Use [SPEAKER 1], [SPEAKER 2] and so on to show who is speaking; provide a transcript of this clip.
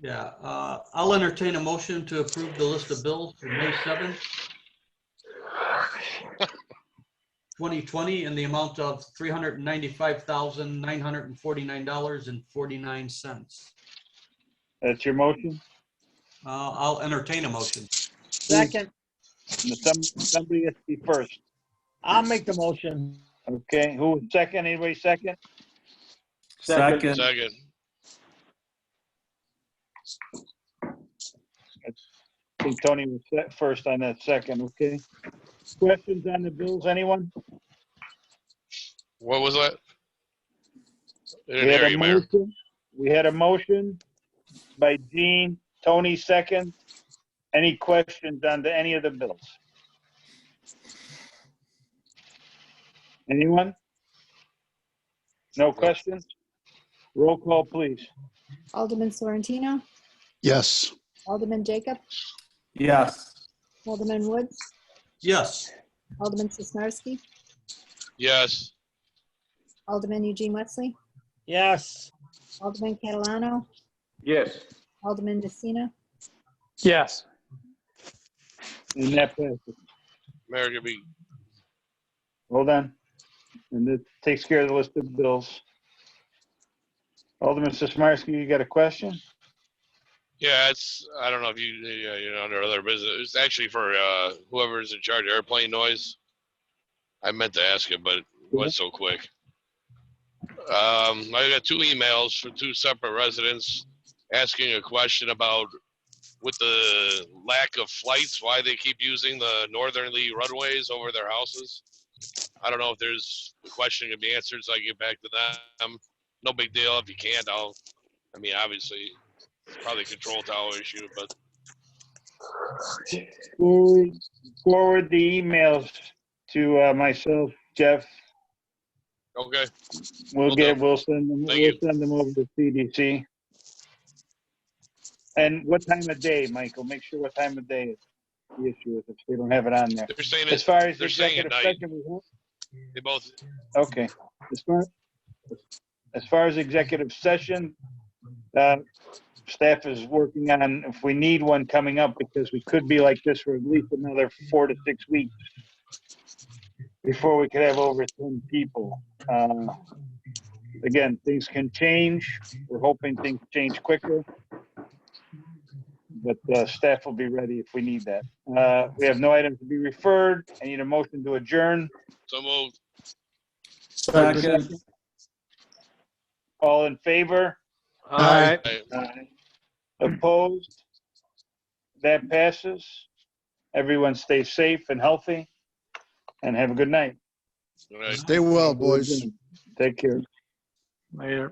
[SPEAKER 1] Yeah, uh, I'll entertain a motion to approve the list of bills for May 7th, 2020, in the amount of $395,949.49.
[SPEAKER 2] That's your motion?
[SPEAKER 1] Uh, I'll entertain a motion.
[SPEAKER 3] Second,
[SPEAKER 2] Some- Somebody has to be first.
[SPEAKER 3] I'll make the motion.
[SPEAKER 2] Okay, who was second? Anybody second?
[SPEAKER 4] Second.
[SPEAKER 5] Second.
[SPEAKER 2] I think Tony was se- first on that second, okay? Questions on the bills, anyone?
[SPEAKER 5] What was that? I
[SPEAKER 2] We
[SPEAKER 5] didn't
[SPEAKER 2] had
[SPEAKER 5] hear
[SPEAKER 2] a
[SPEAKER 5] you, Mayor.
[SPEAKER 2] motion- We had a motion by Gene, Tony second. Any questions on the, any of the bills? Anyone? No questions? Roll call, please.
[SPEAKER 6] Alderman Sorrentino,
[SPEAKER 7] yes,
[SPEAKER 6] Alderman Jacob,
[SPEAKER 4] Yes.
[SPEAKER 6] Alderman Woods,
[SPEAKER 1] Yes,
[SPEAKER 6] Alderman Sismarski,
[SPEAKER 5] Yes,
[SPEAKER 6] Alderman Eugene Wesley,
[SPEAKER 3] Yes,
[SPEAKER 6] Alderman Catalano,
[SPEAKER 4] Yes.
[SPEAKER 6] Alderman Messina,
[SPEAKER 8] yes,
[SPEAKER 2] And that passes.
[SPEAKER 5] Mayor could be
[SPEAKER 2] Hold on. And that takes care of the list of bills. Alderman Sismarski, you got a question?
[SPEAKER 5] Yeah, it's, I don't know if you, yeah, you know, under other business, it's actually for uh whoever's in charge of airplane noise. I meant to ask it, but it was so quick. Um, I got two emails from two separate residents asking a question about with the lack of flights, why they keep using the northerly runways over their houses. I don't know if there's, the question can be answered, so I can get back to them. No big deal. If you can't, I'll, I mean, obviously, probably control tower issue, but
[SPEAKER 2] Forward forward the emails to uh, myself, Jeff.
[SPEAKER 5] okay,
[SPEAKER 2] We'll
[SPEAKER 5] Will
[SPEAKER 2] get,
[SPEAKER 5] do.
[SPEAKER 2] we'll send them,
[SPEAKER 5] Thank
[SPEAKER 2] we'll
[SPEAKER 5] you.
[SPEAKER 2] send them over to CDC. And what time of day, Michael? Make sure what time of day is the issue is if they don't have it on there.
[SPEAKER 5] they're saying
[SPEAKER 2] As
[SPEAKER 5] it's,
[SPEAKER 2] far as
[SPEAKER 5] they're saying at
[SPEAKER 2] executive
[SPEAKER 5] night.
[SPEAKER 2] session, we won't-
[SPEAKER 5] they both,
[SPEAKER 2] okay. As far, as far as executive session, uh, staff is working on if we need one coming up because we could be like this for at least another four to six weeks before we could have over 10 people. Uh, Again, things can change. We're hoping things change quicker. But uh, staff will be ready if we need that. Uh, We have no items to be referred. I need a motion to adjourn.
[SPEAKER 5] so moved,
[SPEAKER 4] Second.
[SPEAKER 2] All in favor?
[SPEAKER 8] aye.
[SPEAKER 5] Aye.
[SPEAKER 2] Opposed? That passes. Everyone stay safe and healthy, and have a good night.
[SPEAKER 5] All right.
[SPEAKER 7] stay well, boys.
[SPEAKER 2] Take care.
[SPEAKER 8] Mayor.